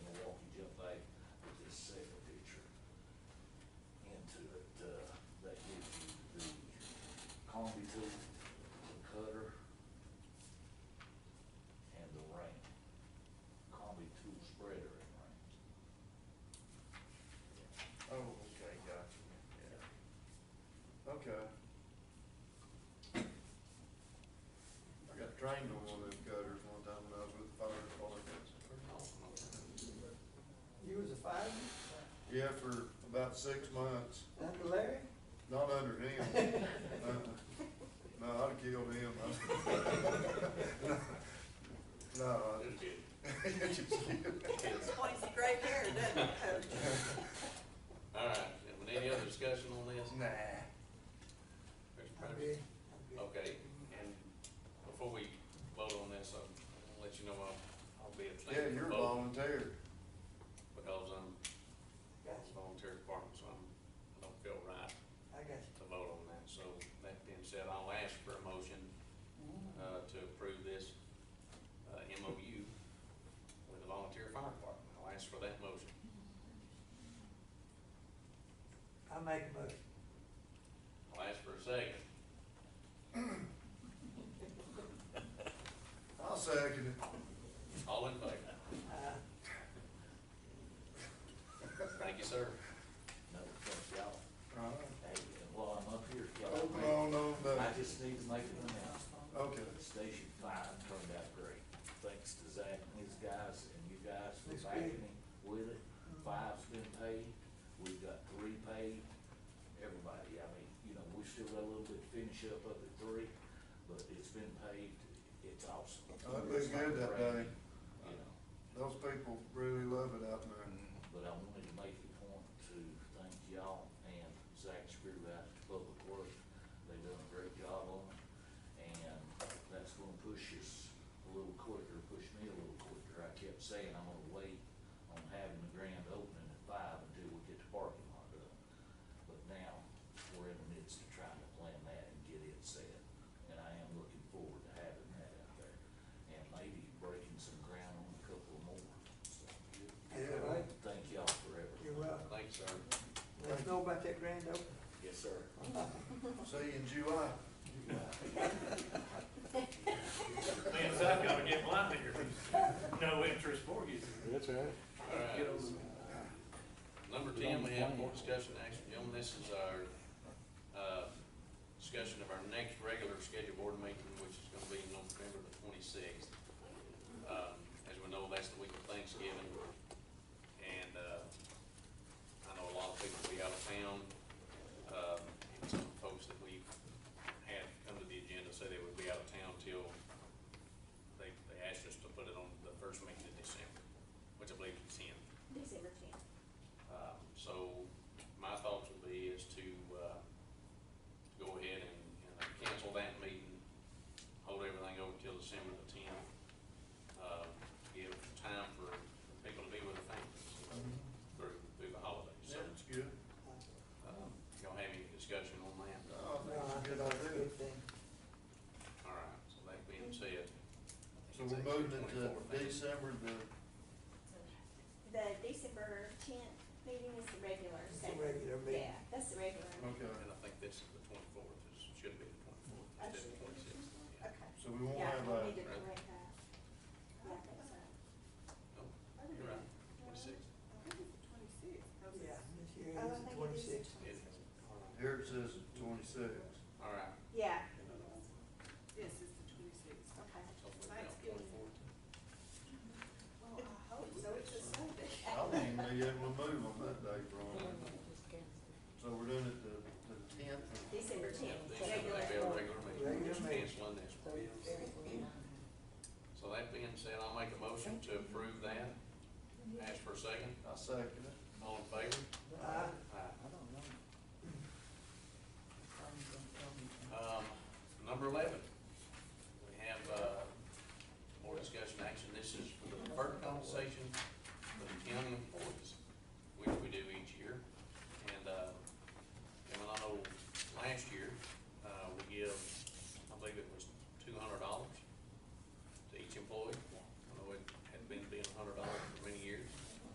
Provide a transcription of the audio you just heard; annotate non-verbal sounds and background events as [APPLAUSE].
to save a picture into it, uh, that gives you the combi tool, the cutter, and the ring. Combi tool spreader and ring. Oh, okay, gotcha, yeah. Okay. I got trained on one of them cutters one time when I was with the fire department. You was a fireman Yeah, for about six months, under Larry? not under [LAUGHS] him. Uh-uh. No, I'd have killed him. [LAUGHS] No, I just. just kidding. Explains the gray hair, doesn't it, Coach? All right, gentlemen, any other discussion on this? [LAUGHS] Nah. Mr. I'm Patterson? good. I'm good. Okay, and before we vote on this, I'm gonna let you know I'll, I'll be Yeah, abstaining you're from a voting volunteer. because I'm Gotcha. volunteer department, so I'm, I don't feel right I got you. to vote on that. So that being said, I'll ask for a motion, uh, to approve this, uh, MOU with the volunteer fire department. I'll ask for that motion. I make a motion. I'll ask for a second. I'll second it. All in favor? Uh, Thank you, sir. Another thing, y'all, All right. hey, while I'm up here, y'all, Open on, on, I uh, just need to make an announcement. okay. Station five turned out great, thanks to Zach and his guys and you guys for That's backing good. him with it. Mm-hmm. Five's been paid, we've got three paid, everybody, I mean, you know, we still got a little bit to finish up of the three, but it's been paid, it's awesome. Oh, It was good that day. You know, Those people really love it out there. [LAUGHS] but I wanted to make a point to thank y'all and Zach Screw out to Public Works. They've done a great job on it, and that's gonna push us a little quicker, push me a little quicker. I kept saying I'm gonna wait on having the grand opening at five until we get the parking lot up. But now, we're in the midst of trying to plan that and get it set, and I am looking forward to having that out there. And maybe breaking some ground on a couple more, so. That's all right. Thank y'all forever. You're welcome. Thank you, sir. Let us know about that grand opening. Yes, sir. See you in July. Man, so I've gotta get mine here. No interest mortgage. That's right. All right. Number ten, we have more discussion action, gentlemen, this is our, uh, discussion of our next regular scheduled board meeting, which is gonna be November the twenty-sixth. Um, as we know, that's the week of Thanksgiving, and, uh, I know a lot of people will be out of town. Um, and some folks that we had come to the agenda say they would be out of town till they, they asked us to put it on the first meeting in December, which I believe is ten. December tenth. Um, So my thoughts would be is to, uh, to go ahead and, and cancel that meeting, hold everything over till December the tenth. Uh, give time for people to be with their families, you know, through, through the holidays. So, Sounds good. um, y'all have any discussion on that? Oh, No, that's a I think good that's a idea. good thing. Uh, All right, so that being said. So we're moving it to December the, The December tenth meeting is the regular, It's so. a regular meeting. Yeah, that's the regular. okay, And I think this is the twenty-fourth, this should be the twenty-fourth, instead I of should- the twenty-sixth. yeah. Okay. so we won't Yeah, have uh, we need that. to correct that. Yeah, I think so. No, Oh, you're right, twenty-sixth. Yeah, this year is the Oh, I think it twenty-sixth. is the It- 26th. Here it says the twenty-sixth. All right, Yeah, Yes, it's the twenty-sixth. okay. so we're down Thanksgiving. twenty-fourth. Well, I Oh, hope so, it's a Sunday. I won't even be able to move on that day, Ron. So we're doing it the, the tenth. December tenth, These are regular. gonna be our regular meeting, we're Regular just meeting. canceling this one. So that being said, I'll make a motion to approve that. Ask for a second, I second it. all in favor? Uh, Aye. [CLEARS THROAT] Um, number eleven, uh, uh, uh,